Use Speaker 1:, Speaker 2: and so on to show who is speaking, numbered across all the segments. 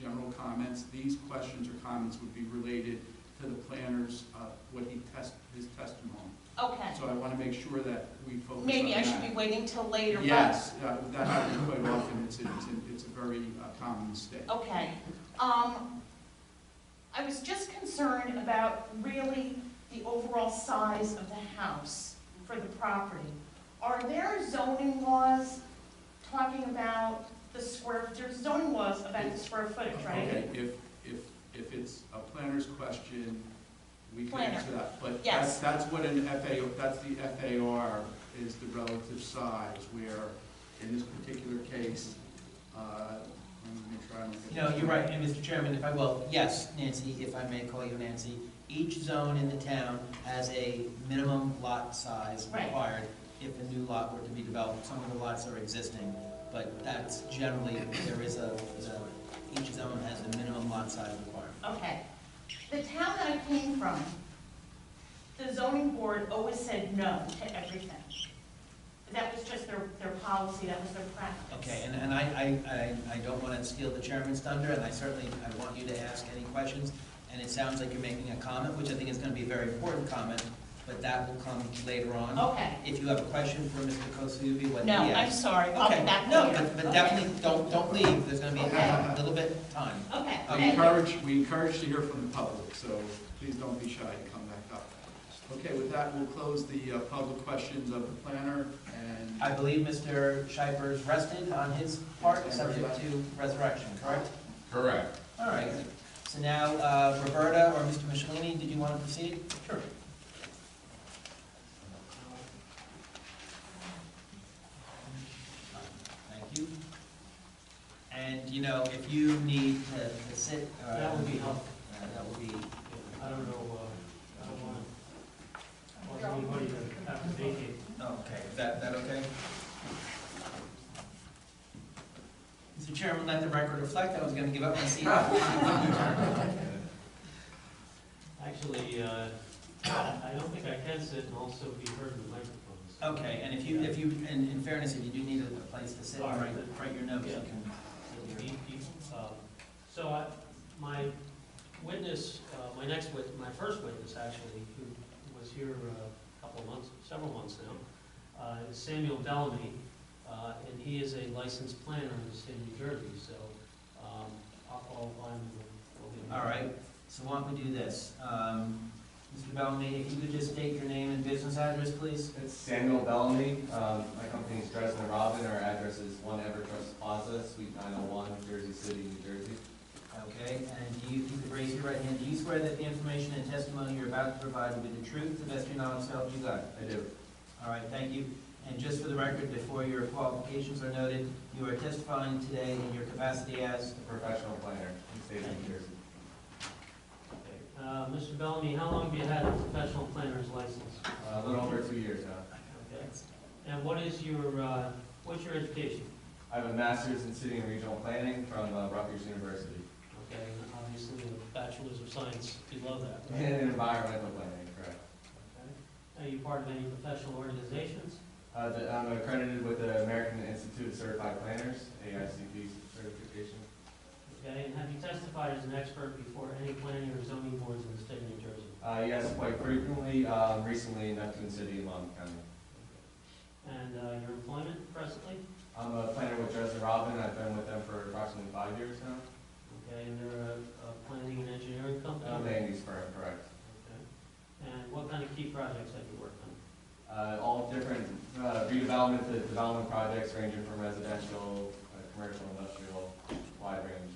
Speaker 1: general comments. These questions or comments would be related to the planner's, uh, what he test, his testimony.
Speaker 2: Okay,
Speaker 1: So I want to make sure that we focus on that.
Speaker 2: maybe I should be waiting till later, but.
Speaker 1: Yes, uh, that happens quite often. It's, it's, it's a very uh, common mistake.
Speaker 2: Okay, um, I was just concerned about really the overall size of the house for the property. Are there zoning laws talking about the square, there's zoning laws about the square footage, right?
Speaker 1: Okay, if, if, if it's a planner's question, we can
Speaker 2: Planner.
Speaker 1: answer that. But that's,
Speaker 2: Yes.
Speaker 1: that's what an FA, that's the FAR, is the relative size, where in this particular case, uh, let me make sure I don't get.
Speaker 3: No,
Speaker 1: this
Speaker 3: you're
Speaker 1: wrong.
Speaker 3: right, and Mr. Chairman, if I will, yes, Nancy, if I may call you Nancy, each zone in the town has a minimum lot size
Speaker 2: Right.
Speaker 3: required if a new lot were to be developed, some of the lots are existing, but that's generally, there is a, the- each zone has a minimum lot size required.
Speaker 2: Okay, the town that I came from, the zoning board always said no to everything. That was just their, their policy, that was their practice.
Speaker 3: Okay, and, and I, I, I- I don't want to steal the chairman's thunder, and I certainly, I want you to ask any questions, and it sounds like you're making a comment, which I think is going to be a very important comment, but that will come later on.
Speaker 2: Okay.
Speaker 3: If you have a question for Mr. Kosubi, what he
Speaker 2: No,
Speaker 3: asked.
Speaker 2: I'm sorry, I'll
Speaker 3: Okay,
Speaker 2: be back
Speaker 3: no,
Speaker 2: later.
Speaker 3: but, but
Speaker 2: Okay.
Speaker 3: definitely, don't, don't leave, there's gonna be a
Speaker 1: Okay.
Speaker 3: little bit of time.
Speaker 2: Okay,
Speaker 3: Um,
Speaker 1: We
Speaker 2: thank you.
Speaker 1: encourage, we encourage to hear from the public, so please don't be shy and come back up. Okay, with that, we'll close the uh, public questions of the planner and.
Speaker 3: I believe Mr. Schiper's rested on his part, subject to resurrection, correct?
Speaker 4: Correct.
Speaker 3: All right, so now, uh, Roberta or Mr. Michelini, did you want to proceed? Sure. Thank you. And, you know, if you need to to sit. uh,
Speaker 5: That would be helpful.
Speaker 3: uh, That would be,
Speaker 5: I don't know, uh, I don't want, I want anybody to have to vacate.
Speaker 3: Okay, is that, that okay? Mr. Chairman, let the record reflect, I was gonna give up my seat.
Speaker 5: Actually, uh, I don't think I can sit and also be heard in the microphones.
Speaker 3: Okay, and if you, if you, in, in fairness, if you do need a a place to sit,
Speaker 5: All
Speaker 3: write,
Speaker 5: right.
Speaker 3: write your notes, you
Speaker 5: Yeah.
Speaker 3: can.
Speaker 5: It'll be people. Um, So I, my witness, uh, my next wit, my first witness actually, who was here uh, a couple of months, several months now, uh, is Samuel Bellamy, uh, and he is a licensed planner in the state of New Jersey, so um, I'll, I'll, I'm.
Speaker 3: All right, so why don't we do this? Um, Mr. Bellamy, if you could just state your name and business address, please?
Speaker 6: It's Samuel Bellamy. Um, My company is Dresden and Robin. Our address is 1 Evertrust Plaza, Suite 901, Jersey City, New Jersey.
Speaker 3: Okay, and do you, if you could raise your right hand, do you swear that the information and testimony you're about to provide will be the truth, the best of your knowledge, self you got?
Speaker 6: I do.
Speaker 3: All right, thank you. And just for the record, before your qualifications are noted, you are testifying today in your capacity as,
Speaker 6: A professional planner in the state of New Jersey.
Speaker 5: Uh, Mr. Bellamy, how long have you had a professional planner's license?
Speaker 6: Uh, A little over two years now.
Speaker 5: Okay. And what is your, uh, what's your education?
Speaker 6: I have a master's in city and regional planning from uh, Rutgers University
Speaker 5: Okay, and obviously a bachelor's of science below that, right?
Speaker 6: in environmental planning, correct.
Speaker 5: Okay. Are you part of any professional organizations?
Speaker 6: Uh, the- I'm accredited with the American Institute of Certified Planners, AICP certification.
Speaker 5: Okay, and have you testified as an expert before any planning or zoning boards in the state of New Jersey?
Speaker 6: Uh, Yes, quite frequently, um, recently in Neptune City and Long County.
Speaker 5: And uh, your employment presently?
Speaker 6: I'm a planner with Dresden Robin. I've been with them for approximately five years now.
Speaker 5: Okay, and they're a a planning and engineering company?
Speaker 6: Uh, land use firm, correct.
Speaker 5: Okay. And what kind of key projects have you worked on?
Speaker 6: Uh, all different uh, redevelopment to development projects ranging from residential, uh, commercial, industrial, wide range.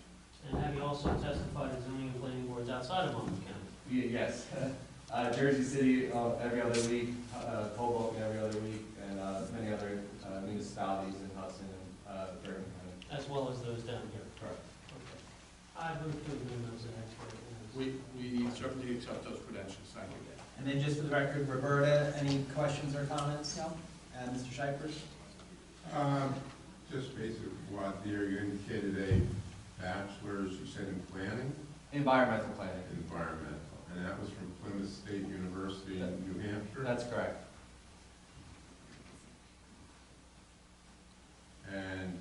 Speaker 5: And have you also testified as zoning and planning boards outside of Monmouth County?
Speaker 6: Ye- Yes, uh, Jersey City uh, every other week, uh, Hoboken every other week, and uh, many other uh, municipalities in Hudson and uh, Bergen County.
Speaker 5: As well as those down here.
Speaker 6: Correct.
Speaker 5: Okay. I move to adjourn as an expert. witness.
Speaker 1: We, we certainly accept those credentials, thank you.
Speaker 3: and then just for the record, Roberta, any questions or comments? Uh, No. And Mr. Shipers?
Speaker 7: Um, Just basically what there, you indicated a bachelor's, you said in planning,
Speaker 6: Environmental planning,
Speaker 7: environmental, and that was from Plymouth State University in New Hampshire.
Speaker 6: that's correct.
Speaker 7: And uh,